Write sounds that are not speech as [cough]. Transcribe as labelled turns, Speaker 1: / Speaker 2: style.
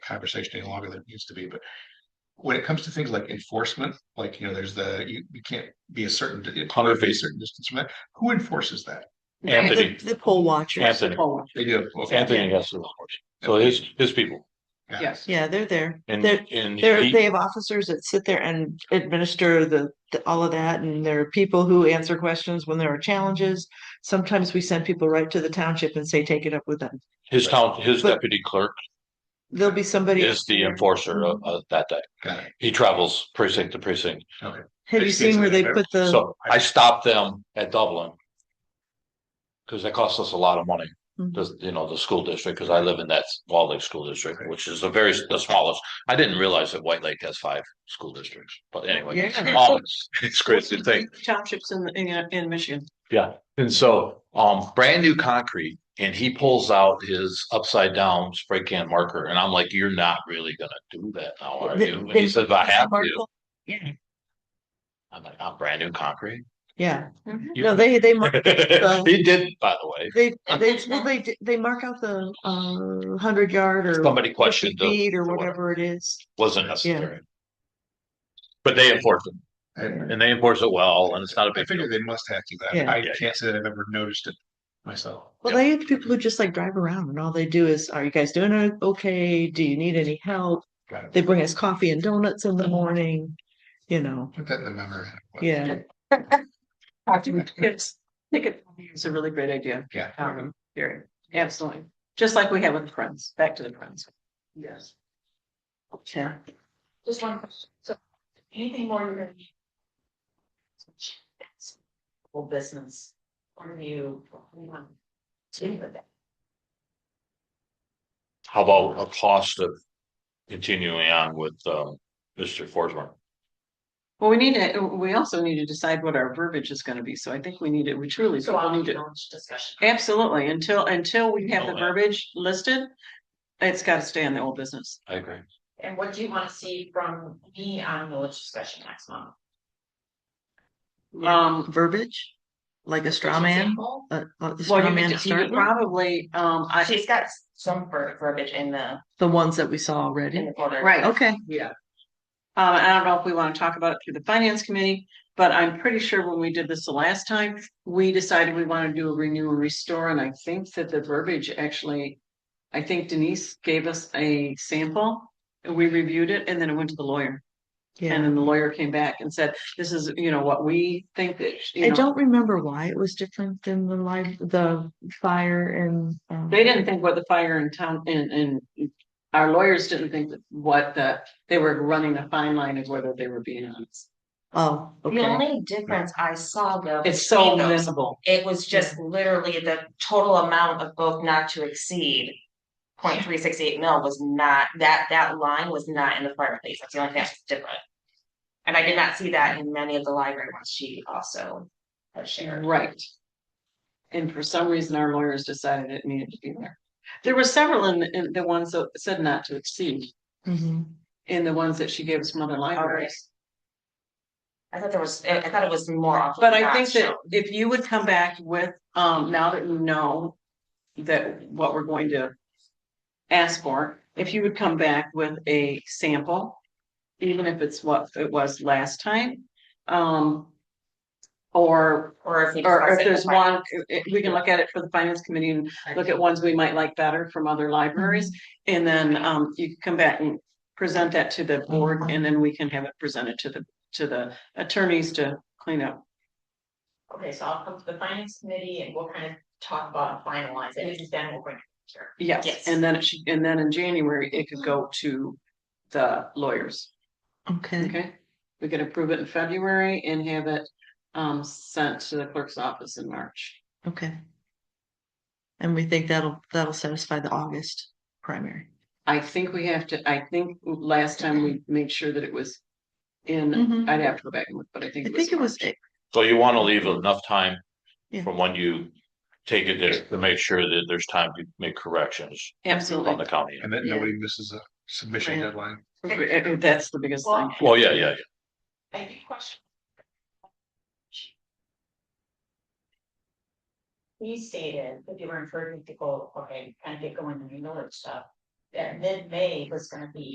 Speaker 1: conversation any longer than it needs to be, but. When it comes to things like enforcement, like, you know, there's the, you, you can't be a certain, you can't be a certain distance from that, who enforces that?
Speaker 2: Anthony.
Speaker 3: [laughs] The the poll watchers.
Speaker 2: Anthony.
Speaker 3: poll watchers.
Speaker 1: They do. okay.
Speaker 2: Anthony has to, so his, his people
Speaker 1: Yeah.
Speaker 4: Yes.
Speaker 3: Yeah, they're there.
Speaker 2: and,
Speaker 3: They're,
Speaker 2: and.
Speaker 3: they're,
Speaker 2: he-
Speaker 3: they have officers that sit there and administer the, the- all of that. And there are people who answer questions when there are challenges. Sometimes we send people right to the township and say, take it up with them.
Speaker 2: His town, his
Speaker 3: But-
Speaker 2: deputy clerk
Speaker 3: There'll be somebody.
Speaker 2: is the enforcer of, of that day.
Speaker 1: Got it.
Speaker 2: He travels precinct to precinct.
Speaker 3: Have you seen where they put the,
Speaker 2: So I stopped them at Dublin. Cause that cost us a lot of money,
Speaker 3: Mhm.
Speaker 2: the, you know, the school district, cause I live in that Wall Lake School District, which is the very, the smallest. I didn't realize that White Lake has five school districts, but anyway.
Speaker 3: Yeah.
Speaker 2: um, It's crazy to think.
Speaker 3: townships in, in, in Michigan?
Speaker 2: Yeah, and so, um, brand new concrete, and he pulls out his upside down spray can marker, and I'm like, you're not really gonna do that now, are
Speaker 3: The-
Speaker 2: you? And he
Speaker 3: the-
Speaker 2: says, I have to.
Speaker 3: Markle? Yeah.
Speaker 2: I'm like, I'm brand new concrete.
Speaker 3: Yeah,
Speaker 2: You-
Speaker 3: no, they,
Speaker 2: [laughs]
Speaker 3: they, mark- so-
Speaker 2: He did, by the way,
Speaker 3: they, they, well, they, d- they mark out the, uh, hundred yard or.
Speaker 2: somebody
Speaker 3: 50
Speaker 2: questioned it,
Speaker 3: Feet or
Speaker 2: the-
Speaker 3: whatever it is.
Speaker 2: wasn't necessary. But they enforce it,
Speaker 1: I-
Speaker 2: and they enforce it well, and it's not a
Speaker 1: I
Speaker 2: big deal.
Speaker 1: figure they must have to, that,
Speaker 3: Yeah.
Speaker 1: I
Speaker 2: Yeah.
Speaker 1: can't say that I've ever noticed it myself.
Speaker 3: Well, they have people who just like drive around and all they do is, are you guys doing o- okay? Do you need any help?
Speaker 1: Got it.
Speaker 3: They bring us coffee and donuts in the
Speaker 4: Mm-hmm.
Speaker 3: morning, you know,
Speaker 1: Put that in the memory.
Speaker 4: [laughs]
Speaker 3: yeah.
Speaker 4: After we kids, I think it is a really great idea.
Speaker 1: Yeah.
Speaker 4: Um, very, absolutely. Just like we have with friends, back to the friends. Yes.
Speaker 3: Yeah.
Speaker 5: Just one question, so anything more you're gonna need? Whole business, or you? To with that.
Speaker 2: How about a cost of continuing on with, um, Mr. Forsman?
Speaker 4: Well, we need to, we also need to decide what our verbiage is gonna be, so I think we need it, we truly.
Speaker 5: So I'll
Speaker 4: need
Speaker 5: need
Speaker 4: to.
Speaker 5: a lunch discussion.
Speaker 4: Absolutely, until, until we have the
Speaker 2: Oh, yeah.
Speaker 4: verbiage listed, it's gotta stay in the old business.
Speaker 2: I agree.
Speaker 5: And what do you wanna see from me on the lunch discussion next month?
Speaker 4: Um,
Speaker 3: Verbiage, like a straw man,
Speaker 5: Example?
Speaker 3: uh, uh, the
Speaker 4: well,
Speaker 3: straw
Speaker 4: you
Speaker 3: man to
Speaker 4: could- you
Speaker 3: start
Speaker 4: could
Speaker 3: with,
Speaker 4: probably, um, I,
Speaker 5: Uh, She's got some ver- verbiage in the,
Speaker 3: the ones that we saw
Speaker 5: in
Speaker 3: already.
Speaker 5: the folder.
Speaker 4: right,
Speaker 3: Okay,
Speaker 4: Um, I don't know if we want to talk about it through the finance committee, but I'm pretty sure when we did this the last time, we decided we want to do a renew and restore, and I think that the verbiage actually. I think Denise gave us a sample, and we reviewed it, and then it went to the lawyer, and
Speaker 3: yeah.
Speaker 4: then the lawyer came back and said, this is, you know, what we think that,
Speaker 3: I
Speaker 4: you know.
Speaker 3: don't remember why it was different than the live, the fire and. um,
Speaker 4: They didn't think what the fire in town, and, and our lawyers didn't think that what the, they were running a fine line of whether they were being honest.
Speaker 3: Oh,
Speaker 5: The
Speaker 3: okay.
Speaker 5: only difference I saw though.
Speaker 4: It's so
Speaker 5: between those
Speaker 4: visible.
Speaker 5: It was just literally the total amount of both not to exceed. 0.368 mil was not, that, that line was not in the fireplace, that's the only thing that's different. And I did not see that in many of the library ones she also has shared.
Speaker 4: Right. And for some reason, our lawyers decided it needed to be there. There were several in, in the ones that said not to exceed,
Speaker 3: Mhm.
Speaker 4: in the ones that she gave us from other libraries.
Speaker 5: I thought there was, I I thought it was more often.
Speaker 4: But I
Speaker 5: not
Speaker 4: think that
Speaker 5: shown.
Speaker 4: if you would come back with, um, now that you know that what we're going to ask for, if you would come back with a sample, even if it's what it was last time, um, or
Speaker 5: Or if. you
Speaker 4: Or
Speaker 5: discuss
Speaker 4: if
Speaker 5: it in
Speaker 4: there's
Speaker 5: the
Speaker 4: one, i- we can look at it for the finance committee and look at ones we might like better from other
Speaker 3: Mm-hmm.
Speaker 4: libraries.
Speaker 5: Mm-hmm.
Speaker 4: And then um you can come back and present that to the
Speaker 5: Mm-hmm.
Speaker 4: board and then we can have it presented to the, to the attorneys to clean up.
Speaker 5: Okay, so I'll come to the finance committee and we'll kind of talk about and finalize it, and then we'll bring it here.
Speaker 4: Yes,
Speaker 5: Yes.
Speaker 4: and then it should, and then in January, it could go to the lawyers,
Speaker 3: Okay,
Speaker 4: okay? We could approve it in February and have it um sent to the clerk's office in March.
Speaker 3: okay. And we think that'll, that'll satisfy the August primary.
Speaker 4: I think we have to, I think last time we made sure that it was in
Speaker 3: Mhm.
Speaker 4: I'd have to go back and look, but I think.
Speaker 3: I think it was,
Speaker 4: March.
Speaker 2: So you want to leave enough time
Speaker 3: Yeah.
Speaker 2: from when you take it there to make sure that there's time to make corrections on the
Speaker 4: Absolutely.
Speaker 2: county.
Speaker 1: And that
Speaker 3: Yeah.
Speaker 1: nobody misses a submission
Speaker 4: Right.
Speaker 1: deadline.
Speaker 4: Uh, uh, That's the biggest thing.
Speaker 5: Well,
Speaker 2: Well, yeah, yeah,
Speaker 5: I have a question. He stated that they were encouraging people, okay, kind of get going and you know that stuff. that mid-May was gonna be